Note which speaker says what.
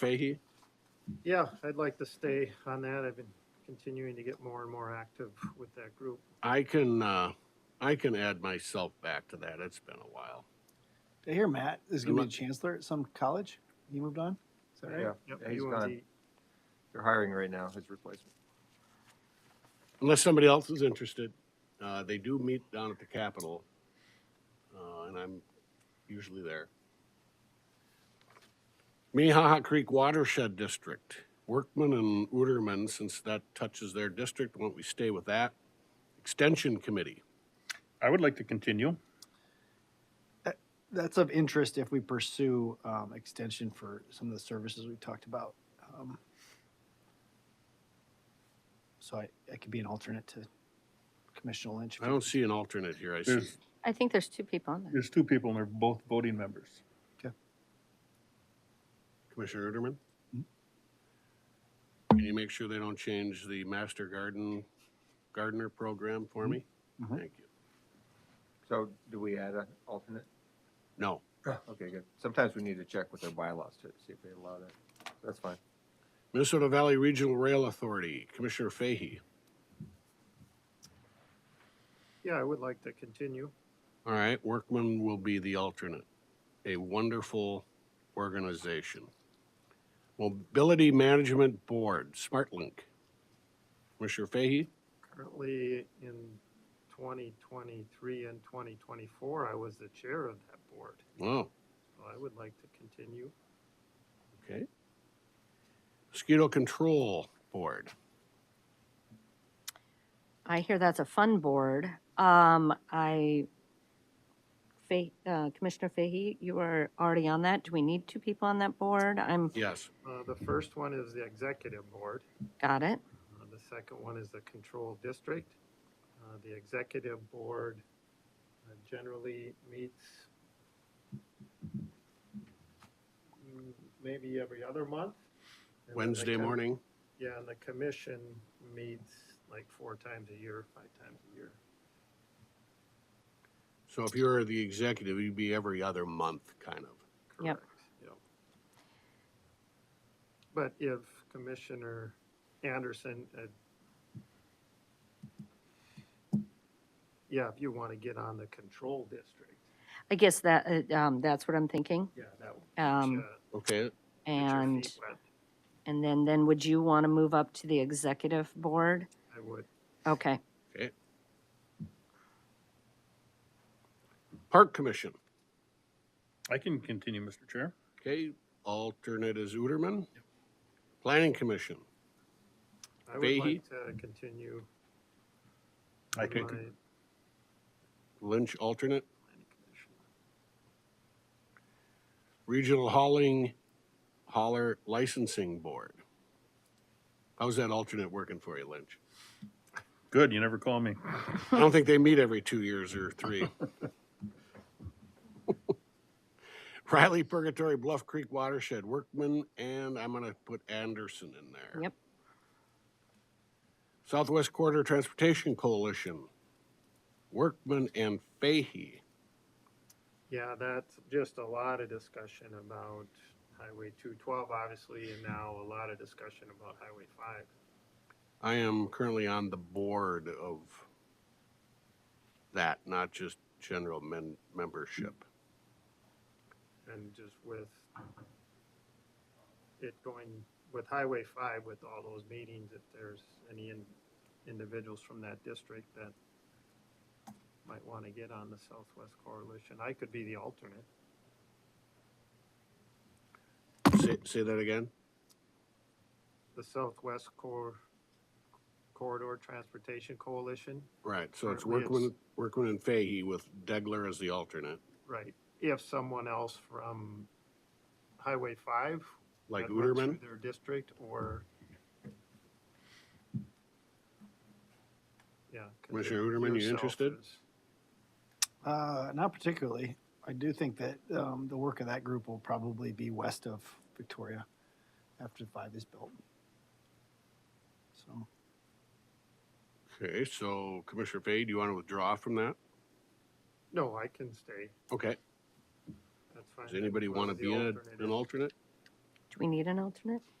Speaker 1: Fahey?
Speaker 2: Yeah, I'd like to stay on that. I've been continuing to get more and more active with that group.
Speaker 1: I can, uh, I can add myself back to that. It's been a while.
Speaker 3: Did I hear Matt is going to be
Speaker 1: Look-
Speaker 3: the chancellor at some college? He moved on? Is that right?
Speaker 4: Yeah,
Speaker 2: Yep,
Speaker 4: he's
Speaker 2: UND.
Speaker 4: gone. They're hiring right now, his replacement.
Speaker 1: Unless somebody else is interested, uh, they do meet down at the Capitol. Uh, and I'm usually there. Minnehaha Creek Watershed District, Workman and Uterman, since that touches their district, won't we stay with that? Extension Committee,
Speaker 5: I would like to continue.
Speaker 3: That's of interest if we pursue um, extension for some of the services we've talked about. Um, so I, I could be an alternate to Commissioner Lynch.
Speaker 1: I don't see an alternate here. I see,
Speaker 5: There's,
Speaker 6: I think there's two people on there.
Speaker 5: there's two people and they're both voting members.
Speaker 1: Commissioner Uterman?
Speaker 3: Mhm.
Speaker 1: Can you make sure they don't change the master garden, gardener program for me?
Speaker 3: Mhm.
Speaker 1: Thank you.
Speaker 4: So do we add an alternate?
Speaker 1: No,
Speaker 4: Okay, good. Sometimes we need to check with their bylaws to see if they allow that. That's fine.
Speaker 1: Minnesota Valley Regional Rail Authority, Commissioner Fahey.
Speaker 2: Yeah, I would like to continue.
Speaker 1: All right, Workman will be the alternate. A wonderful organization. Mobility Management Board, SmartLink. Commissioner Fahey,
Speaker 2: Currently in twenty twenty-three and twenty twenty-four, I was the chair of that board.
Speaker 1: oh,
Speaker 2: So I would like to continue.
Speaker 1: okay. Mosquito Control Board,
Speaker 6: I hear that's a fun board. Um, I, Fa- uh, Commissioner Fahey, you are already on that. Do we need two people on that board? I'm,
Speaker 1: yes.
Speaker 2: Uh, the first one is the executive board.
Speaker 6: got it.
Speaker 2: Uh, The second one is the control district. Uh, The executive board uh, generally meets mm, maybe every other month. And then the
Speaker 1: Wednesday
Speaker 2: com-
Speaker 1: morning,
Speaker 2: Yeah, and the commission meets like four times a year, five times a year.
Speaker 1: so if you're the executive, you'd be every other month, kind of.
Speaker 6: Yep.
Speaker 2: Correct. Yep. But if Commissioner Anderson, uh, yeah, if you want to get on the control district,
Speaker 6: I guess that, uh, um, that's what I'm thinking.
Speaker 2: yeah, that would.
Speaker 6: Um,
Speaker 2: uh,
Speaker 1: Okay,
Speaker 2: get your
Speaker 6: and,
Speaker 2: feet wet.
Speaker 6: and then, then would you want to move up to the executive board?
Speaker 2: I would.
Speaker 6: Okay.
Speaker 1: okay. Park Commission,
Speaker 5: I can continue, Mr. Chair.
Speaker 1: okay, alternate is Uterman. Planning Commission,
Speaker 2: I would
Speaker 1: Fahey?
Speaker 2: like to continue.
Speaker 5: I can,
Speaker 2: my
Speaker 5: con-
Speaker 2: planning
Speaker 1: Lynch alternate.
Speaker 2: commission.
Speaker 1: Regional Hauling Hauler Licensing Board. How's that alternate working for you, Lynch?
Speaker 5: good, you never call me.
Speaker 1: I don't think they meet every two years or three. Riley Purgatory Bluff Creek Watershed Workman, and I'm gonna put Anderson in there.
Speaker 6: Yep.
Speaker 1: Southwest Corridor Transportation Coalition, Workman and Fahey.
Speaker 2: Yeah, that's just a lot of discussion about Highway two twelve, obviously, and now a lot of discussion about Highway five.
Speaker 1: I am currently on the board of that, not just general men, membership.
Speaker 2: And just with it going with Highway five, with all those meetings, if there's any in- individuals from that district that might want to get on the Southwest Coalition, I could be the alternate.
Speaker 1: Say, say that again?
Speaker 2: the Southwest Cor- Corridor Transportation Coalition,
Speaker 1: Right, so it's
Speaker 2: Currently it's-
Speaker 1: Workman, Workman and Fahey with Degler as the alternate,
Speaker 2: right, if someone else from Highway five.
Speaker 1: like
Speaker 2: that runs
Speaker 1: Uterman.
Speaker 2: through Their district or. Yeah. 'cause if
Speaker 1: Commissioner Uterman, you
Speaker 2: yourself
Speaker 1: interested?
Speaker 2: is-
Speaker 3: Uh, not particularly. I do think that um, the work of that group will probably be west of Victoria after the five is built. So
Speaker 1: Okay, so Commissioner Fahey, do you want to withdraw from that?
Speaker 2: No, I can stay,
Speaker 1: Okay,
Speaker 2: that's fine.
Speaker 1: does anybody
Speaker 2: Whoever
Speaker 1: want to
Speaker 2: the
Speaker 1: be a-
Speaker 2: alternate
Speaker 1: an
Speaker 2: is.
Speaker 1: alternate?
Speaker 6: Do we need an alternate?